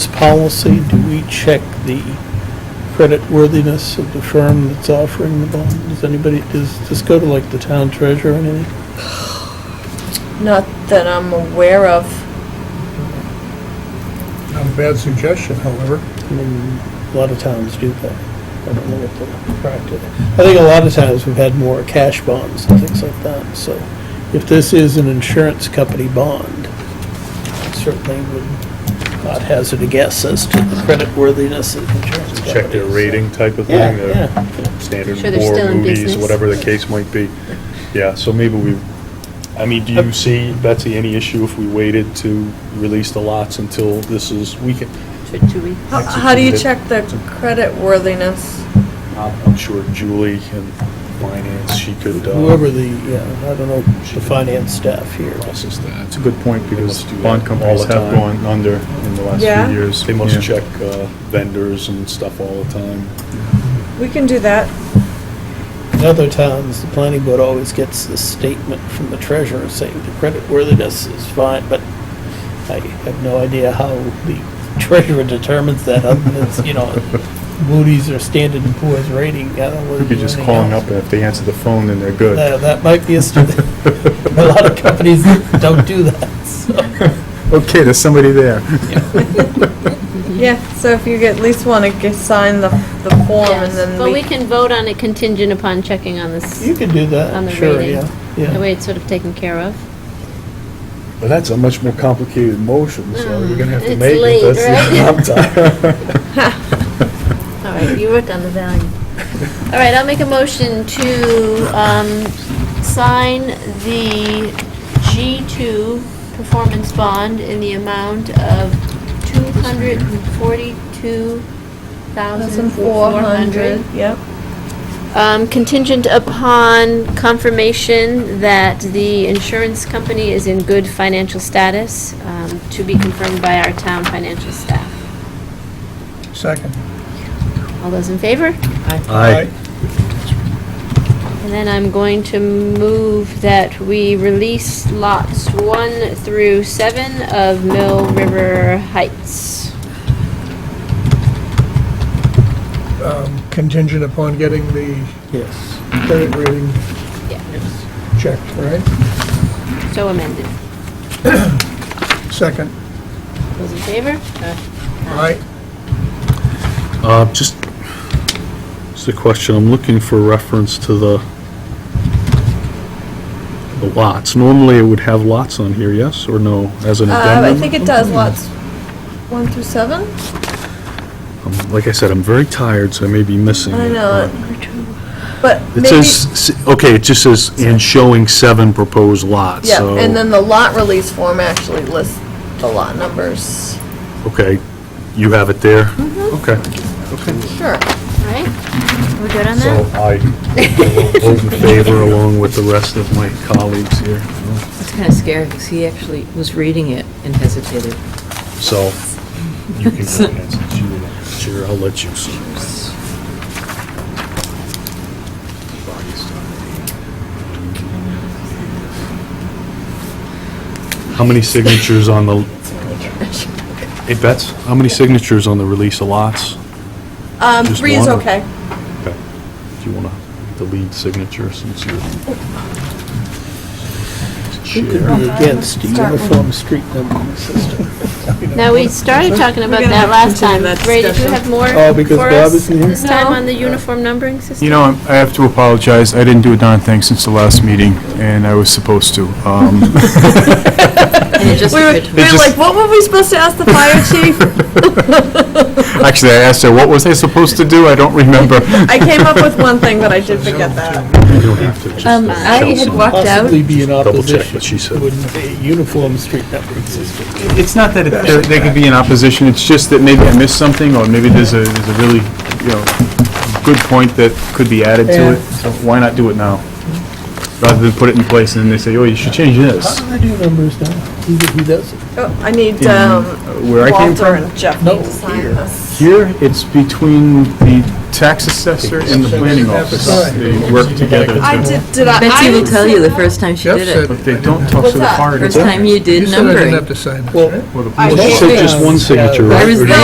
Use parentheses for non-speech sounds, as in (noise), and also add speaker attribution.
Speaker 1: policy, do we check the credit worthiness of the firm that's offering the bond? Does anybody, does this go to like the town treasurer or anything?
Speaker 2: Not that I'm aware of.
Speaker 3: Not a bad suggestion, however.
Speaker 1: I mean, a lot of towns do that. I don't know what the practice. I think a lot of times we've had more cash bonds and things like that, so if this is an insurance company bond, certainly would not hazard a guess as to the credit worthiness of insurance companies.
Speaker 4: Check their rating type of
Speaker 1: Yeah,
Speaker 4: thing, their
Speaker 1: yeah.
Speaker 4: standard
Speaker 5: Sure they're still
Speaker 4: four
Speaker 5: in
Speaker 4: movies,
Speaker 5: business.
Speaker 4: whatever the case might be. Yeah, so maybe we, I mean, do you see, Betsy, any issue if we waited to release the lots until this is, we can,
Speaker 5: For two weeks.
Speaker 2: How- How do you check the credit worthiness?
Speaker 4: I'm I'm sure Julie and finance, she could. uh,
Speaker 1: Whoever the, yeah, I don't know, the finance staff here.
Speaker 4: process that. It's a good point
Speaker 6: because bond companies have gone under in the last
Speaker 2: Yeah.
Speaker 6: few years.
Speaker 4: They must
Speaker 6: Yeah.
Speaker 4: check uh, vendors and stuff all the time.
Speaker 2: We can do that.
Speaker 1: In other towns, the planning board always gets this statement from the treasurer saying the credit worthiness is fine, but I have no idea how the (laughs) treasurer determines that, other than, it's, you know, Moody's or Standard and Poor's rating, I don't know.
Speaker 6: Could be just calling up, and if they answer the phone, then they're good.
Speaker 1: That, that might be a, st-
Speaker 6: (laughs)
Speaker 1: a lot of companies don't do that,
Speaker 6: (laughs)
Speaker 1: so.
Speaker 6: Okay, there's somebody there.
Speaker 2: Yeah, so if you get- at least want to sign the, the form and then
Speaker 5: But we
Speaker 2: we,
Speaker 5: can vote on it contingent upon checking on this,
Speaker 1: You could do
Speaker 5: On
Speaker 1: that,
Speaker 5: the
Speaker 1: sure,
Speaker 5: rating.
Speaker 1: yeah,
Speaker 5: the
Speaker 1: yeah.
Speaker 5: way it's sort of taken care of.
Speaker 4: But that's a much more complicated motion, so we're gonna have to
Speaker 5: Mm, It's
Speaker 4: make
Speaker 5: late,
Speaker 4: it. That's- (laughs) I'm tired.
Speaker 5: All right, you worked on the value. All right, I'll make a motion to um, sign the G2 performance bond in the amount of $242,400.
Speaker 2: 1,400, yep.
Speaker 5: Um, Contingent upon confirmation that the insurance company is in good financial status, um, to be confirmed by our town financial staff.
Speaker 3: Second.
Speaker 5: All those in favor?
Speaker 3: Aye.
Speaker 5: And then I'm going to move that we release lots one through seven of Mill River Heights.
Speaker 3: Um, Contingent upon getting the
Speaker 1: Yes.
Speaker 3: credit rating
Speaker 5: Yeah.
Speaker 3: checked, right?
Speaker 5: So amended.
Speaker 3: Second.
Speaker 5: Those in favor?
Speaker 3: Aye.
Speaker 4: Uh, Just, just a question, I'm looking for reference to the, the lots. Normally, it would have lots on here, yes, or no, as an
Speaker 2: Uh, I
Speaker 4: addendum? Mm-hmm.
Speaker 2: think it does lots one through seven?
Speaker 4: Um, Like I said, I'm very tired, so I may be missing.
Speaker 2: I
Speaker 4: it,
Speaker 2: know,
Speaker 4: but-
Speaker 2: but
Speaker 4: It
Speaker 2: maybe.
Speaker 4: says, s- okay, it just says, and showing seven proposed lots,
Speaker 2: Yeah,
Speaker 4: so.
Speaker 2: and then the lot release form actually lists the lot numbers.
Speaker 4: Okay, you have it there? Okay.
Speaker 2: Sure.
Speaker 5: Mm-hmm. All right, we're good on
Speaker 4: So
Speaker 5: that?
Speaker 4: I vote in favor along with the rest of my colleagues here.
Speaker 7: It's kind of scary because he actually was reading it and hesitated.
Speaker 4: So you can go ahead since you were- Sure, I'll let you. How many signatures on the, hey, Bets, how many signatures on the release of lots?
Speaker 2: Um,
Speaker 4: Just
Speaker 2: three is
Speaker 4: one or-
Speaker 2: okay.
Speaker 4: Okay. Do you want to, the lead signature since you're.
Speaker 1: Who could
Speaker 4: Chair.
Speaker 1: be against a uniform street numbering system?
Speaker 5: Now, we started talking about that last time.
Speaker 2: that
Speaker 5: Ray, did you
Speaker 2: discussion.
Speaker 5: have more
Speaker 1: Oh, because
Speaker 5: for
Speaker 1: Bob
Speaker 5: us
Speaker 1: isn't here?
Speaker 5: this time on the uniform numbering system?
Speaker 6: You know, I'm- I have to apologize, I didn't do a darn thing since the last meeting, and I was supposed to. Um, (laughs)
Speaker 7: And it just
Speaker 2: We were,
Speaker 7: occurred to
Speaker 2: we
Speaker 7: me,
Speaker 2: were
Speaker 6: just-
Speaker 2: like, what were we supposed to ask the
Speaker 4: (laughs)
Speaker 2: fire chief?
Speaker 6: Actually, I asked her, what was I supposed to do? I don't remember.
Speaker 2: I came up with one thing, but I did forget that.
Speaker 4: You don't have to, just
Speaker 7: Um,
Speaker 4: tell
Speaker 7: I had
Speaker 4: someone.
Speaker 7: walked out.
Speaker 1: possibly be in
Speaker 4: Double check
Speaker 1: opposition
Speaker 4: what she said.
Speaker 1: to a uniform street numbering system.
Speaker 6: It's not that it- there- there could be an opposition, it's just that maybe I missed something, or maybe there's a, there's a really, you know, good point that could be added to it, so why not do it now? Rather than put it in place and then they say, oh, you should change
Speaker 1: How
Speaker 6: this.
Speaker 1: do I do numbers now? Who who does it?
Speaker 2: Oh, I need,
Speaker 6: In
Speaker 2: um,
Speaker 6: where I came
Speaker 2: Walter
Speaker 6: from?
Speaker 2: and Jeff
Speaker 1: No,
Speaker 2: need to sign
Speaker 1: here.
Speaker 2: this.
Speaker 6: Here, it's between the tax assessor and the planning office. They work together,
Speaker 2: I
Speaker 6: to-
Speaker 2: did, did I?
Speaker 7: Betsy
Speaker 2: I
Speaker 7: will
Speaker 2: would
Speaker 7: tell
Speaker 2: say-
Speaker 7: you the first time she
Speaker 3: Jeff
Speaker 7: did it.
Speaker 3: said,
Speaker 6: but they don't talk
Speaker 2: What's
Speaker 6: so the
Speaker 2: that?
Speaker 6: party.
Speaker 7: First time you
Speaker 3: you
Speaker 7: did
Speaker 3: said I didn't have
Speaker 7: numbering.
Speaker 3: to sign this,
Speaker 1: Well,
Speaker 3: right?
Speaker 6: Well, the
Speaker 2: I
Speaker 6: police-
Speaker 4: She said just one signature,
Speaker 7: I
Speaker 4: right? Or
Speaker 7: was
Speaker 4: do you
Speaker 7: there.